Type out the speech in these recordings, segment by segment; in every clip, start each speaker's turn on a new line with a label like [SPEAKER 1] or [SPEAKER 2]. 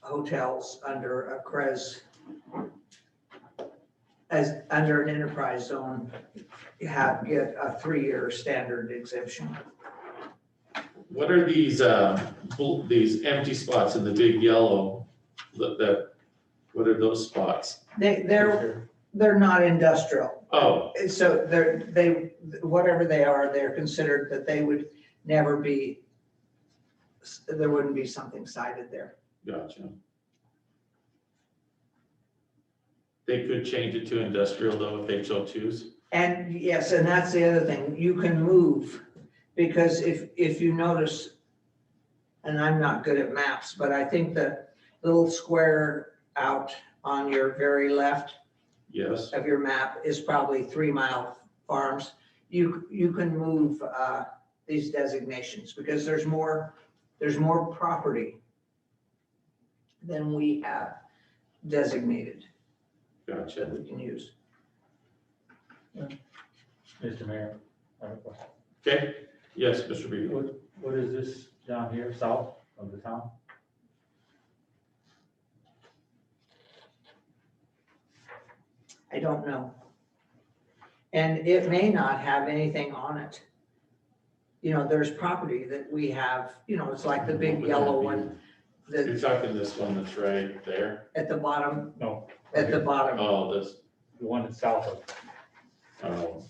[SPEAKER 1] hotels under a CREZ as, under an enterprise zone, you have, get a three-year standard exemption.
[SPEAKER 2] What are these, uh, bl- these empty spots in the big yellow? That, that, what are those spots?
[SPEAKER 1] They, they're, they're not industrial.
[SPEAKER 2] Oh,
[SPEAKER 1] And So they're, they, whatever they are, they're considered that they would never be, there wouldn't be something cited there.
[SPEAKER 2] gotcha. They could change it to industrial though if they so choose.
[SPEAKER 1] And yes, and that's the other thing, you can move, because if, if you notice, and I'm not good at maps, but I think the little square out on your very left
[SPEAKER 2] Yes,
[SPEAKER 1] of your map is probably three mile farms. You, you can move uh, these designations, because there's more, there's more property than we have designated that
[SPEAKER 2] gotcha.
[SPEAKER 1] we can use.
[SPEAKER 3] Mr. Mayor, I have a question.
[SPEAKER 2] Okay, yes, Mr. Beagle.
[SPEAKER 3] What, what is this down here, south of the town?
[SPEAKER 1] I don't know. And it may not have anything on it. You know, there's property that we have, you know, it's like the
[SPEAKER 2] What
[SPEAKER 1] big
[SPEAKER 2] would
[SPEAKER 1] yellow
[SPEAKER 2] that be?
[SPEAKER 1] one that
[SPEAKER 2] You're talking this one that's right there?
[SPEAKER 1] at the bottom,
[SPEAKER 3] No.
[SPEAKER 1] at the bottom.
[SPEAKER 2] Oh, this,
[SPEAKER 3] The one that's south of,
[SPEAKER 2] oh,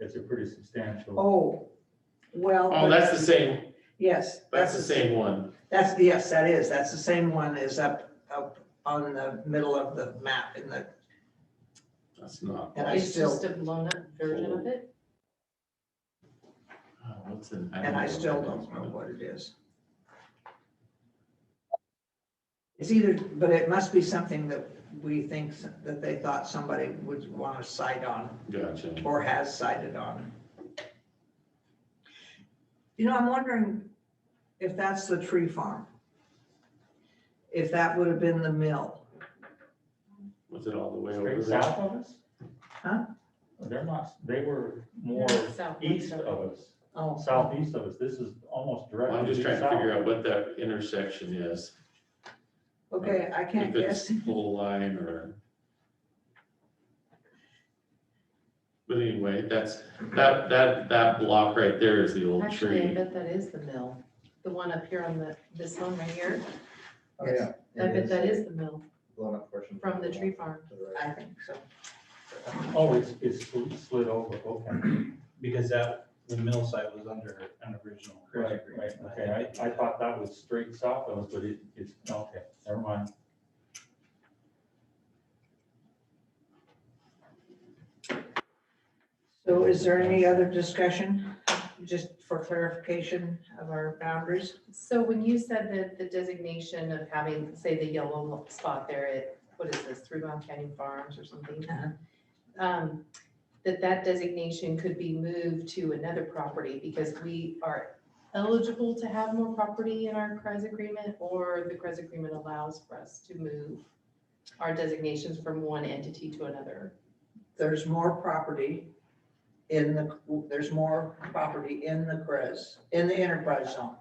[SPEAKER 3] it's a pretty substantial,
[SPEAKER 1] Oh, well.
[SPEAKER 2] oh, that's the same,
[SPEAKER 1] Yes,
[SPEAKER 2] that's the same one.
[SPEAKER 1] That's, yes, that is. That's the same one is up, up on the middle of the map in the,
[SPEAKER 2] That's not,
[SPEAKER 1] and I
[SPEAKER 4] It's
[SPEAKER 1] still,
[SPEAKER 4] just a blown up version of it.
[SPEAKER 2] oh, what's in? don't
[SPEAKER 1] and I
[SPEAKER 2] know what
[SPEAKER 1] still
[SPEAKER 2] that
[SPEAKER 1] don't
[SPEAKER 2] is.
[SPEAKER 1] know what it is. It's either, but it must be something that we think s- that they thought somebody would want to cite on
[SPEAKER 2] Gotcha.
[SPEAKER 1] or has cited on. You know, I'm wondering if that's the tree farm. If that would have been the mill.
[SPEAKER 2] Was it all the way over
[SPEAKER 3] straight
[SPEAKER 2] there?
[SPEAKER 3] south of us?
[SPEAKER 1] Huh?
[SPEAKER 3] They're not, they were more
[SPEAKER 4] South
[SPEAKER 3] east
[SPEAKER 4] of-
[SPEAKER 3] of us,
[SPEAKER 1] Oh,
[SPEAKER 3] southeast of us. This is almost
[SPEAKER 2] Well,
[SPEAKER 3] directly.
[SPEAKER 2] I'm just trying to
[SPEAKER 3] south.
[SPEAKER 2] figure out what that intersection is.
[SPEAKER 1] okay, I can't
[SPEAKER 2] If
[SPEAKER 1] guess.
[SPEAKER 2] it's full line or. But anyway, that's, that, that, that block right there is the old
[SPEAKER 4] Actually, I
[SPEAKER 2] tree.
[SPEAKER 4] bet that is the mill, the one up here on the, this one right here.
[SPEAKER 5] Oh,
[SPEAKER 1] Yes.
[SPEAKER 5] yeah.
[SPEAKER 4] I
[SPEAKER 5] It
[SPEAKER 4] bet
[SPEAKER 5] is
[SPEAKER 4] that is the mill
[SPEAKER 5] Blown up portion.
[SPEAKER 4] from the tree farm.
[SPEAKER 5] To the right.
[SPEAKER 1] I think so.
[SPEAKER 3] Oh, it's, it's sl- slid over, okay.
[SPEAKER 6] because that, the mill site was under an original credit
[SPEAKER 3] Right, right,
[SPEAKER 6] agreement.
[SPEAKER 3] okay. I, I thought that was straight south of us, but it, it's, okay, never mind.
[SPEAKER 1] So is there any other discussion, just for clarification of our boundaries?
[SPEAKER 4] So when you said that the designation of having, say, the yellow spot there at, what is this, Three Mile Canyon Farms or something?
[SPEAKER 1] Uh-huh.
[SPEAKER 4] um, That that designation could be moved to another property because we are eligible to have more property in our CREZ agreement or the CREZ agreement allows for us to move our designations from one entity to another.
[SPEAKER 1] There's more property in the, there's more property in the CREZ, in the enterprise zone.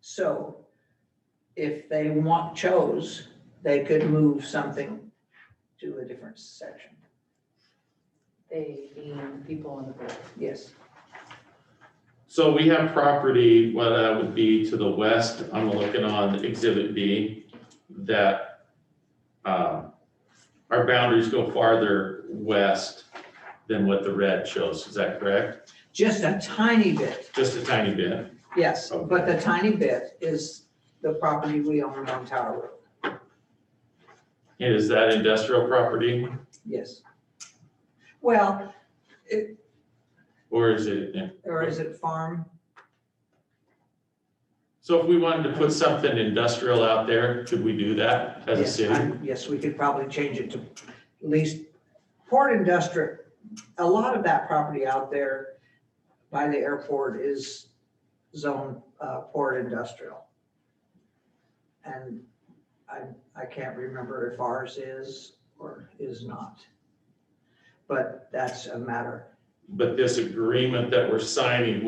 [SPEAKER 1] So if they want, chose, they could move something to a different section.
[SPEAKER 4] They being people on the board.
[SPEAKER 1] Yes,
[SPEAKER 2] So we have property, what that would be to the west, I'm looking on exhibit B, that um, our boundaries go farther west than what the red shows, is that correct?
[SPEAKER 1] just a tiny bit,
[SPEAKER 2] Just a tiny bit,
[SPEAKER 1] yes, but the tiny bit is the property we own on Tower Road,
[SPEAKER 2] and is that industrial property
[SPEAKER 1] yes. Well,
[SPEAKER 2] or is it?
[SPEAKER 1] Or is it farm?
[SPEAKER 2] So if we wanted to put something industrial out there, could we do that as a
[SPEAKER 1] Yes,
[SPEAKER 2] city?
[SPEAKER 1] I'm- Yes, we could probably change it to at least port industrial. A lot of that property out there by the airport is zone uh, port industrial. And I, I can't remember if ours is or is not. But that's a matter
[SPEAKER 2] But this agreement that we're signing